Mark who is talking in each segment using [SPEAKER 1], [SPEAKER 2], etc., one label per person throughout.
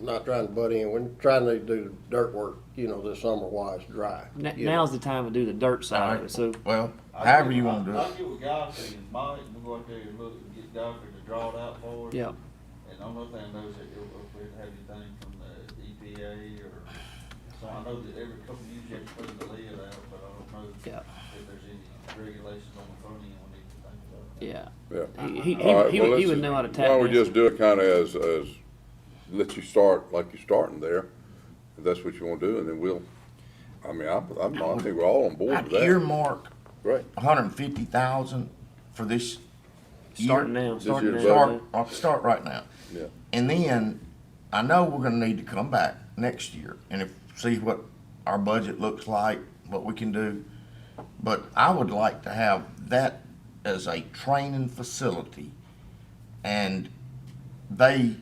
[SPEAKER 1] not trying to butt in, we're trying to do dirt work, you know, this summer while it's dry.
[SPEAKER 2] N-
[SPEAKER 1] you know.
[SPEAKER 2] Now's the time to do the dirt side of it, so
[SPEAKER 3] Well, however you wanna do
[SPEAKER 4] I'll
[SPEAKER 3] it.
[SPEAKER 4] get with Godfrey and Mike, we'll go out there and look and get Godfrey to draw it out for us.
[SPEAKER 2] Yeah.
[SPEAKER 4] And the only thing I know is that if if we have anything from the EPA or, so I know that every couple of years you have to clean the lid out, but I don't know if
[SPEAKER 2] Yeah.
[SPEAKER 4] there's any regulations on the front end we need to think about.
[SPEAKER 2] yeah,
[SPEAKER 5] Yeah.
[SPEAKER 2] he he, he,
[SPEAKER 5] All right,
[SPEAKER 2] he,
[SPEAKER 5] well,
[SPEAKER 2] would- he
[SPEAKER 5] let's-
[SPEAKER 2] would know how to
[SPEAKER 5] Why
[SPEAKER 2] tackle.
[SPEAKER 5] don't we just do it kinda as, as, let you start like you're starting there, if that's what you wanna do, and then we'll, I mean, I'm, I'm, I think we're all on board
[SPEAKER 3] I'd
[SPEAKER 5] with that.
[SPEAKER 3] earmark
[SPEAKER 5] Right.
[SPEAKER 3] hundred and fifty thousand for this. year.
[SPEAKER 2] Starting now,
[SPEAKER 5] year's
[SPEAKER 2] starting
[SPEAKER 5] budget.
[SPEAKER 2] now.
[SPEAKER 3] Start, I'll start right now.
[SPEAKER 5] Yeah.
[SPEAKER 3] And then, I know we're gonna need to come back next year and if, see what our budget looks like, what we can do. But I would like to have that as a training facility. And they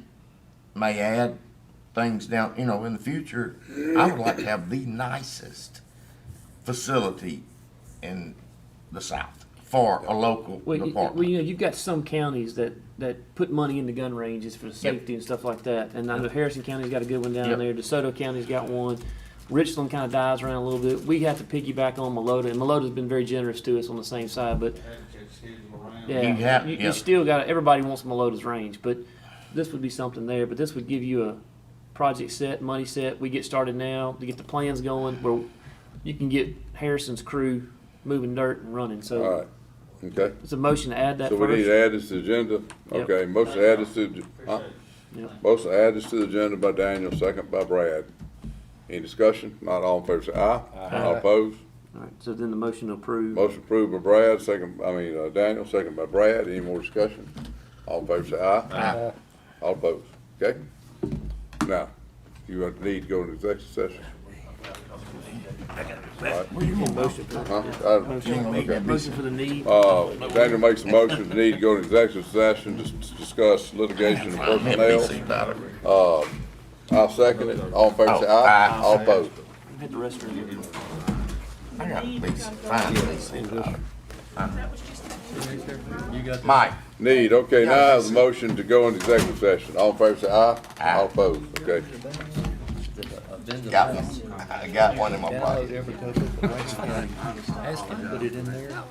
[SPEAKER 3] may add things down, you know, in the future. I would like to have the nicest facility in the South for a local
[SPEAKER 2] Well, you, well,
[SPEAKER 3] department.
[SPEAKER 2] you know, you've got some counties that, that put money into gun ranges for safety and stuff like that. And I know Harrison County's got a good one down
[SPEAKER 3] Yep.
[SPEAKER 2] there. DeSoto County's got one. Richland kind of dies around a little bit. We have to piggyback on Malota, and Melota's been very generous to us on the same side. But
[SPEAKER 4] Have to schedule around.
[SPEAKER 2] yeah,
[SPEAKER 3] You have-
[SPEAKER 2] you,
[SPEAKER 3] yeah.
[SPEAKER 2] you still got everybody wants Melota's range, but this would be something there. But this would give you a project set, money set. We get started now to get the plans going where you can get Harrison's crew moving dirt and running. So
[SPEAKER 5] Alright, okay,
[SPEAKER 2] it's a motion to add that
[SPEAKER 5] so we
[SPEAKER 2] first.
[SPEAKER 5] need to add this to the agenda,
[SPEAKER 2] Yep.
[SPEAKER 5] okay, motion to add this to, the- huh?
[SPEAKER 4] Appreciate it.
[SPEAKER 2] Yep.
[SPEAKER 5] Motion to add this to the agenda by Daniel, second by Brad. Any discussion? Not all in favor, say aye. All opposed?
[SPEAKER 2] All right, so then the motion to approve.
[SPEAKER 5] Motion approved by Brad, second, I mean, uh, Daniel, second by Brad. Any more discussion? All in favor, say aye.
[SPEAKER 3] Aye.
[SPEAKER 5] All opposed, okay? Now, you have to need to go into executive session.
[SPEAKER 3] Well, you gonna vote?
[SPEAKER 5] Huh? I-
[SPEAKER 2] Motion
[SPEAKER 3] Okay.
[SPEAKER 2] motion for the need.
[SPEAKER 5] Uh, Daniel makes a motion to need to go into executive session to s- discuss litigation and personnel. I'll second it. All in favor, say aye. All opposed.
[SPEAKER 2] Hit the restroom.
[SPEAKER 3] I got these, fine, these, uh,
[SPEAKER 6] That was just.
[SPEAKER 3] Mike,
[SPEAKER 5] Need, okay, now is the motion to go into executive session. All in favor, say aye.
[SPEAKER 3] Aye.
[SPEAKER 5] All opposed, okay?
[SPEAKER 3] got one, I got one in my pocket.
[SPEAKER 7] Ask him to put it in there.